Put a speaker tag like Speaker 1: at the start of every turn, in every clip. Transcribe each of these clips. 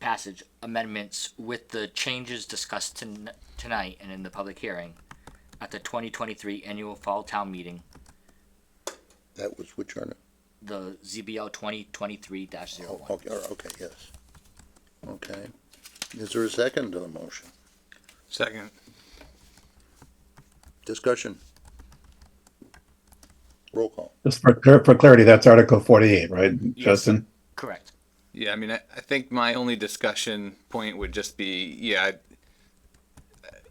Speaker 1: passage amendments with the changes discussed ton- tonight and in the public hearing at the twenty twenty-three annual fall town meeting,
Speaker 2: That was which on it?
Speaker 1: the ZBL twenty twenty-three dash zero
Speaker 2: Oh,
Speaker 1: one.
Speaker 2: okay, oh, okay, yes. Okay. Is there a second to the motion?
Speaker 3: Second.
Speaker 2: Discussion? Roll call.
Speaker 4: Just for, clar- for clarity, that's Article 48, right, Justin?
Speaker 1: Correct.
Speaker 3: Yeah, I mean, I, I think my only discussion point would just be, yeah, I-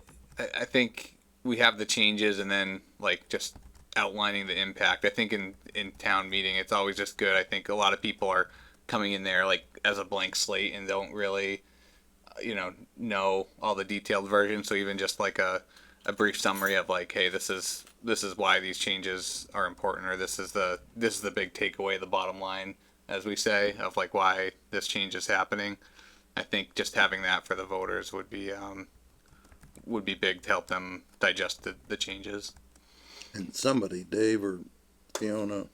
Speaker 3: I, I think we have the changes and then like just outlining the impact. I think in, in town meeting, it's always just good. I think a lot of people are coming in there like as a blank slate and don't really, uh, you know, know all the detailed versions. So even just like a, a brief summary of like, hey, this is this is why these changes are important, or this is the this is the big takeaway, the bottom line, as we say, of like why this change is happening. I think just having that for the voters would be um, would be big to help them digest the, the changes.
Speaker 2: And somebody, Dave or Fiona,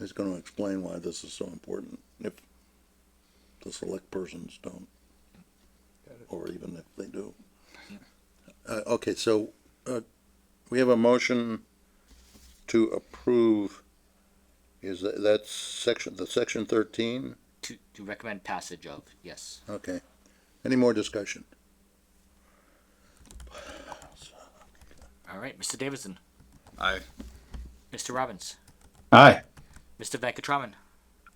Speaker 2: is gonna explain why this is so important if the select persons don't. Or even if they do. Uh, okay, so, uh, we have a motion to approve. Is that, that's section, the section thirteen?
Speaker 1: To, to recommend passage of, yes.
Speaker 2: Okay. Any more discussion?
Speaker 1: All right, Mr. Davidson,
Speaker 3: I
Speaker 1: Mr. Robbins,
Speaker 4: Aye.
Speaker 1: Mr. Venkatraman,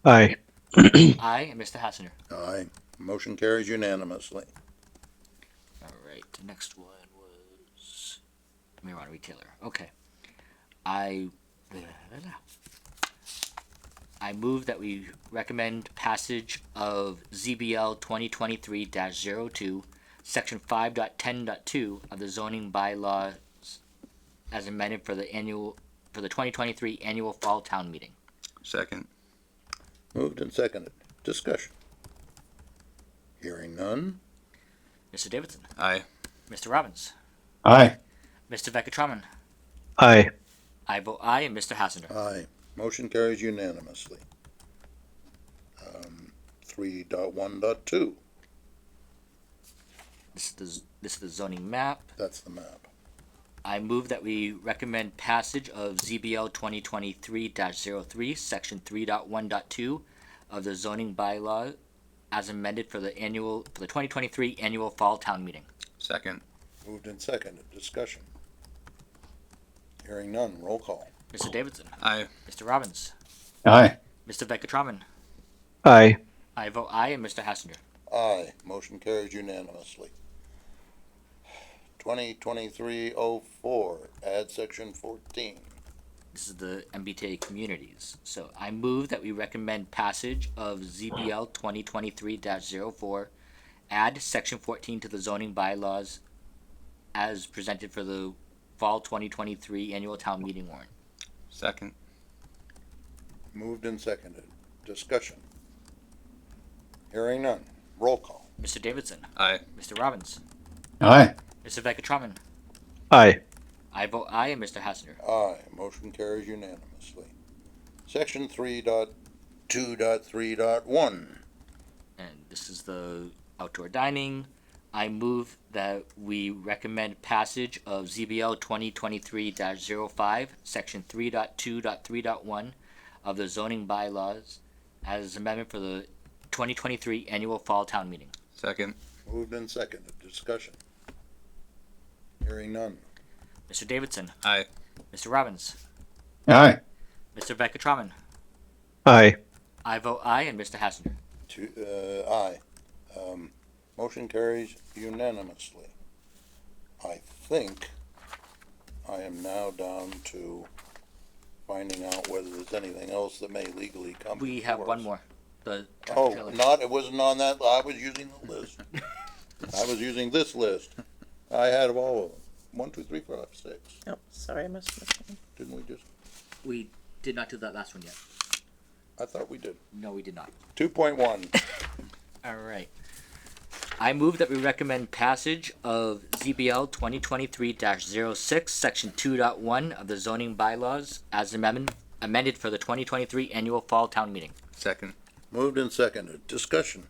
Speaker 5: Aye.
Speaker 1: I and Mr. Hassinger.
Speaker 2: Aye. Motion carries unanimously.
Speaker 1: All right, the next one was marijuana retailer. Okay, I I move that we recommend passage of ZBL twenty twenty three 2 section five dot ten dot two of the zoning bylaws as amended for the annual for the twenty twenty three annual fall town meeting.
Speaker 3: second.
Speaker 2: Moved and seconded. Discussion. Hearing none.
Speaker 1: Mr. Davidson,
Speaker 3: I
Speaker 1: Mr. Robbins,
Speaker 4: Aye.
Speaker 1: Mr. Vekatraman,
Speaker 5: Aye.
Speaker 1: I vote aye, and Mr. Hassinger.
Speaker 2: Aye. Motion carries unanimously. Um, three dot one dot two,
Speaker 1: This is the z- this is the zoning map.
Speaker 2: that's the map.
Speaker 1: I move that we recommend passage of ZBL twenty twenty-three 3 section three of the zoning bylaw as amended for the annual, for the twenty twenty-three annual fall town meeting.
Speaker 3: second.
Speaker 2: Moved and seconded. Discussion. Hearing none. Roll call.
Speaker 1: Mr. Davidson,
Speaker 3: I
Speaker 1: Mr. Robbins,
Speaker 4: Aye.
Speaker 1: Mr. Veckatraman,
Speaker 5: Aye.
Speaker 1: I vote aye, and Mr. Hassinger.
Speaker 2: Aye. Motion carries unanimously. Twenty twenty-three oh four, add section fourteen.
Speaker 1: This is the MBTA communities. So I move that we recommend passage of ZBL twenty twenty-three 4 add section fourteen to the zoning bylaws as presented for the fall twenty twenty-three annual town meeting warrant.
Speaker 3: second.
Speaker 2: Moved and seconded. Discussion. Hearing none. Roll call.
Speaker 1: Mr. Davidson,
Speaker 3: I
Speaker 1: Mr. Robbins,
Speaker 4: Aye.
Speaker 1: Mr. Veckatraman,
Speaker 5: Aye.
Speaker 1: I vote aye, and Mr. Hassinger.
Speaker 2: Aye, motion carries unanimously. Section three dot two dot three dot one.
Speaker 1: and this is the outdoor dining. I move that we recommend passage of ZBL twenty twenty-three 5 section three dot two dot three dot one of the zoning bylaws as amendment for the twenty twenty-three annual fall town meeting.
Speaker 3: second.
Speaker 2: Moved and seconded, discussion. Hearing none.
Speaker 1: Mr. Davidson.
Speaker 3: Aye.
Speaker 1: Mr. Robbins.
Speaker 4: Aye.
Speaker 1: Mr. Veckatraman.
Speaker 5: Aye.
Speaker 1: I vote aye and Mr. Hassinger.
Speaker 2: Two, uh, aye. Um, motion carries unanimously. I think I am now down to finding out whether there's anything else that may legally come.
Speaker 1: We have
Speaker 2: before
Speaker 1: one
Speaker 2: us.
Speaker 1: more. The tractor
Speaker 2: Oh,
Speaker 1: trailer.
Speaker 2: not, it wasn't on that, I was using the list. I was using this list. I had all of them. One, two, three, four, five, six.
Speaker 6: Oh, sorry, I missed this one.
Speaker 2: Didn't we just,
Speaker 1: We did not do that last one yet.
Speaker 2: I thought we did.
Speaker 1: No, we did not.
Speaker 2: Two point one,
Speaker 1: All right. I move that we recommend passage of ZBL 2023-06, Section 2.1 of the zoning bylaws as amendment, amended for the 2023 annual fall town meeting.
Speaker 3: Second.
Speaker 2: moved and seconded, discussion.